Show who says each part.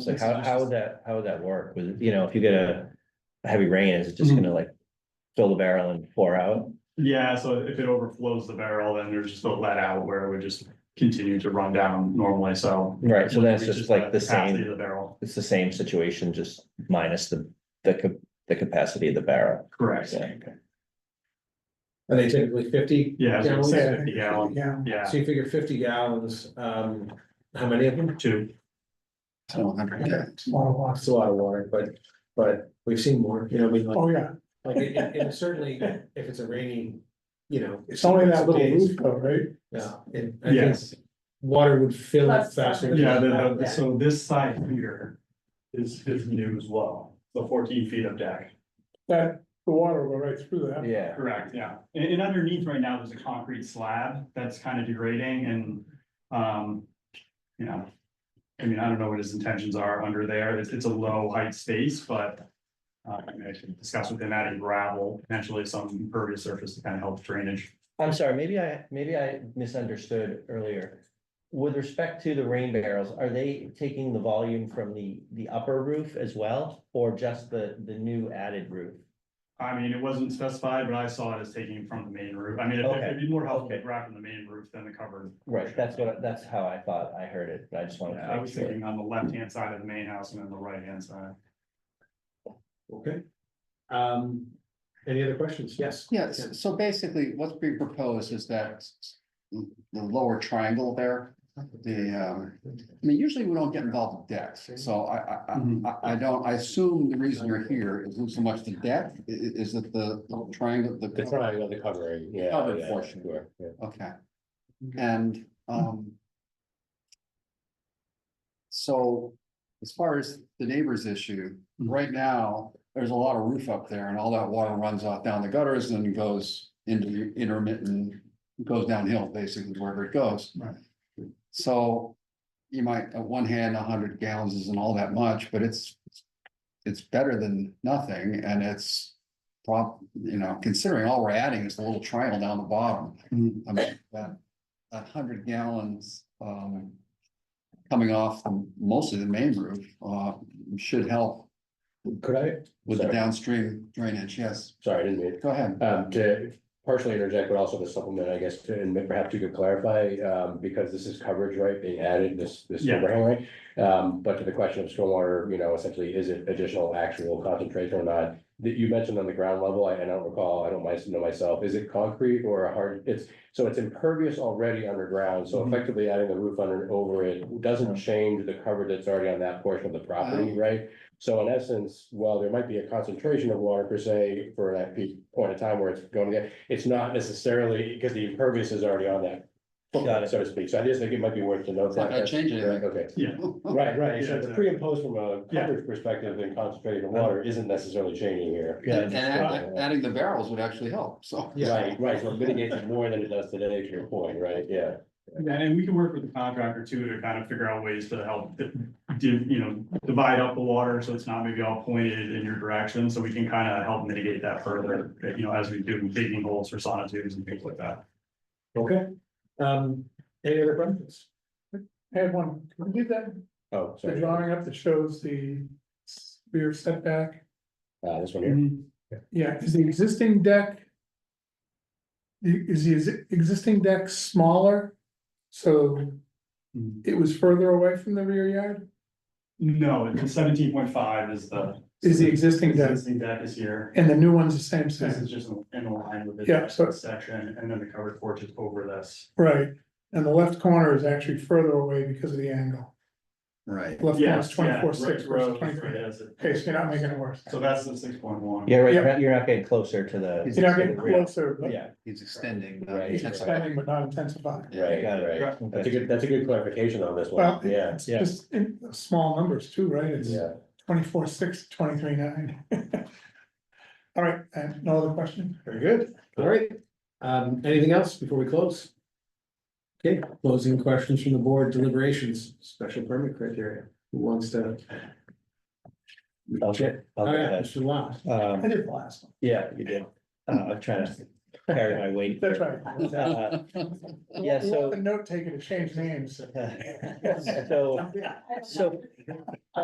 Speaker 1: So how, how would that, how would that work? With, you know, if you get a a heavy rain, is it just
Speaker 2: Mhm.
Speaker 1: gonna like fill the barrel and pour out?
Speaker 2: Yeah, so if it overflows the barrel, then there's just a let out where it would just continue to run down normally, so.
Speaker 1: Right, so then it's
Speaker 2: Reaches
Speaker 1: just like the
Speaker 2: capacity
Speaker 1: same,
Speaker 2: of The barrel,
Speaker 1: it's the same situation, just minus the, the, cap- the capacity of the barrel.
Speaker 2: correct,
Speaker 1: Yeah, okay.
Speaker 3: Are they typically fifty?
Speaker 2: Yeah, so it's
Speaker 3: gallons?
Speaker 2: like 50 gallon.
Speaker 4: Yeah.
Speaker 2: yeah,
Speaker 3: So you figure fifty gallons, um, how many of them?
Speaker 2: two,
Speaker 4: it's a lot of
Speaker 3: It's
Speaker 4: watts.
Speaker 3: a lot of water, but, but we've seen more, you know, I mean, like,
Speaker 4: Oh, yeah,
Speaker 3: like, it- it- and certainly if it's a rainy, you know.
Speaker 4: it's only that little
Speaker 3: days,
Speaker 4: roof though, right?
Speaker 3: Yeah, and I think
Speaker 2: Yes.
Speaker 3: water would fill up
Speaker 5: Plus-
Speaker 3: faster.
Speaker 2: yeah, the- the- so this side here is, is new as well, the fourteen feet of deck.
Speaker 4: That, the water will go right through that.
Speaker 1: Yeah,
Speaker 2: Correct, yeah. And, and underneath right now, there's a concrete slab that's kind of degrading and, um, you know. I mean, I don't know what his intentions are under there. It's, it's a low height space, but. Uh, I mean, I should discuss with him adding gravel, potentially some impervious surface to kind of help drainage.
Speaker 1: I'm sorry, maybe I, maybe I misunderstood earlier. With respect to the rain barrels, are they taking the volume from the, the upper roof as well? Or just the, the new added roof?
Speaker 2: I mean, it wasn't specified, but I saw it as taking from the main roof. I mean, it'd- it'd be more helpful to
Speaker 1: Okay.
Speaker 2: grab from the main roof than the covered.
Speaker 1: Right, that's what, I- that's how I thought I heard it, I just wanted
Speaker 2: Yeah, I
Speaker 1: to make
Speaker 2: was
Speaker 1: sure.
Speaker 2: thinking on the left-hand side of the main house and then the right-hand side.
Speaker 3: Okay. Um, any other questions? Yes.
Speaker 6: Yes, so basically, what's being proposed is that the lower triangle there, the, um, I mean, usually we don't get involved with decks, so I, I, I- I, I don't, I assume the reason you're here isn't so much the deck, i- i- is it the the triangle,
Speaker 7: The
Speaker 6: the,
Speaker 7: triangle, the covering, yeah.
Speaker 6: Covered
Speaker 7: yeah,
Speaker 6: portion.
Speaker 7: sure, yeah.
Speaker 6: okay, and, um. So, as far as the neighbor's issue, right now, there's a lot of roof up there and all that water runs off down the gutters and goes into the intermittent. Goes downhill basically wherever it goes.
Speaker 2: Right.
Speaker 6: So you might, on one hand, hundred gallons isn't all that much, but it's. It's better than nothing and it's prob, you know, considering all we're adding is the little triangle down the bottom.
Speaker 2: Mhm.
Speaker 6: I mean, that, that hundred gallons, um. Coming off the- mostly the main roof, uh, should help
Speaker 7: Could I,
Speaker 6: with the
Speaker 7: Sorry.
Speaker 6: downstream drainage, yes,
Speaker 7: sorry, I didn't mean,
Speaker 6: go ahead.
Speaker 7: um, to partially interject, but also to supplement, I guess, to- and perhaps you could clarify, um, because this is coverage, right, being added, this, this
Speaker 2: Yeah.
Speaker 7: overhang, right? Um, but to the question of stormwater, you know, essentially, is it additional actual concentration or not? That you mentioned on the ground level, I, I don't recall, I don't my- know myself, is it concrete or a hard, it's, so it's impervious already underground, so
Speaker 3: Mm-hmm.
Speaker 2: Mhm.
Speaker 7: effectively adding the roof under, over it doesn't change the cover that's already on that portion of the
Speaker 6: Uh,
Speaker 7: property, right? So in essence, while there might be a concentration of water per se for that peak point of time where it's going to get, it's not necessarily, because the impervious is already on that.
Speaker 1: Got it.
Speaker 7: So to speak, so I just think it might be worth to note
Speaker 6: It's not
Speaker 7: that.
Speaker 6: gonna change anything.
Speaker 7: Okay,
Speaker 2: Yeah.
Speaker 1: Oh,
Speaker 7: right, right, so
Speaker 2: Yeah,
Speaker 7: the pre and post from a
Speaker 2: Yeah.
Speaker 7: coverage perspective and concentrating of water isn't necessarily changing here.
Speaker 1: Yeah,
Speaker 6: And add- adding the barrels would actually help, so.
Speaker 3: Yeah.
Speaker 7: Right, right, so it mitigates more than it does today, to your point, right, yeah.
Speaker 2: Yeah, and we can work with the contractor too to kind of figure out ways to help, di- div- you know, divide up the water so it's not maybe all pointed in your direction. So we can kind of help mitigate that further, you know, as we do digging holes for sonotubes and things like that.
Speaker 3: Okay, um, any other questions?
Speaker 4: I had one, can we get that,
Speaker 7: Oh,
Speaker 4: the
Speaker 7: sorry, uh,
Speaker 4: drawing up that shows the rear setback?
Speaker 7: uh, this one here,
Speaker 4: Mm-hmm. Yeah, is the existing deck? the- Is the exi- existing deck smaller? So
Speaker 2: Mhm.
Speaker 4: it was further away from the rear yard?
Speaker 2: No, the seventeen point five is the.
Speaker 4: Is the existing deck,
Speaker 2: Existing deck is here.
Speaker 4: and the new one's the same
Speaker 2: This
Speaker 4: size,
Speaker 2: is just in line with
Speaker 4: Yeah, so-
Speaker 2: this section and then the covered porch is over this.
Speaker 4: right? And the left corner is actually further away because of the angle.
Speaker 6: Right.
Speaker 4: Left corner is
Speaker 2: Yes, yeah,
Speaker 4: twenty-four six
Speaker 2: Rick's
Speaker 4: versus
Speaker 2: Road,
Speaker 4: twenty-three.
Speaker 2: right, that's it.
Speaker 4: Okay, so you're not making it worse.
Speaker 2: So that's the six point one.
Speaker 1: Yeah, right,
Speaker 4: Yeah.
Speaker 1: you're not- you're not getting closer to the.
Speaker 4: You're not getting
Speaker 1: to the real-
Speaker 4: closer, but
Speaker 1: Yeah,
Speaker 6: He's extending. uh,
Speaker 7: Right.
Speaker 4: it's
Speaker 6: intensifying.
Speaker 4: expanding but not intensifying.
Speaker 7: right,
Speaker 1: Got it.
Speaker 7: right, that's a
Speaker 1: okay,
Speaker 7: good, that's a good clarification on this
Speaker 4: Well,
Speaker 7: one, yeah,
Speaker 4: it's
Speaker 1: yeah.
Speaker 4: just in small numbers too, right? It's
Speaker 7: yeah.
Speaker 4: twenty-four, six, twenty-three, nine. All right, and no other question?
Speaker 3: Very good, all right. Um, anything else before we close? Okay, closing questions from the board deliberations, special permit criteria, who wants to?
Speaker 1: I'll get- I'll
Speaker 3: All
Speaker 1: get
Speaker 3: right,
Speaker 1: that.
Speaker 3: Mr. Lot.
Speaker 4: I
Speaker 1: Um,
Speaker 4: did the last one.
Speaker 1: yeah, you did. Uh, I'm trying to carry my weight.
Speaker 4: That's right.
Speaker 1: Uh, Yeah,
Speaker 4: We want
Speaker 1: so-
Speaker 4: The note taken to change names.
Speaker 1: uh, So, so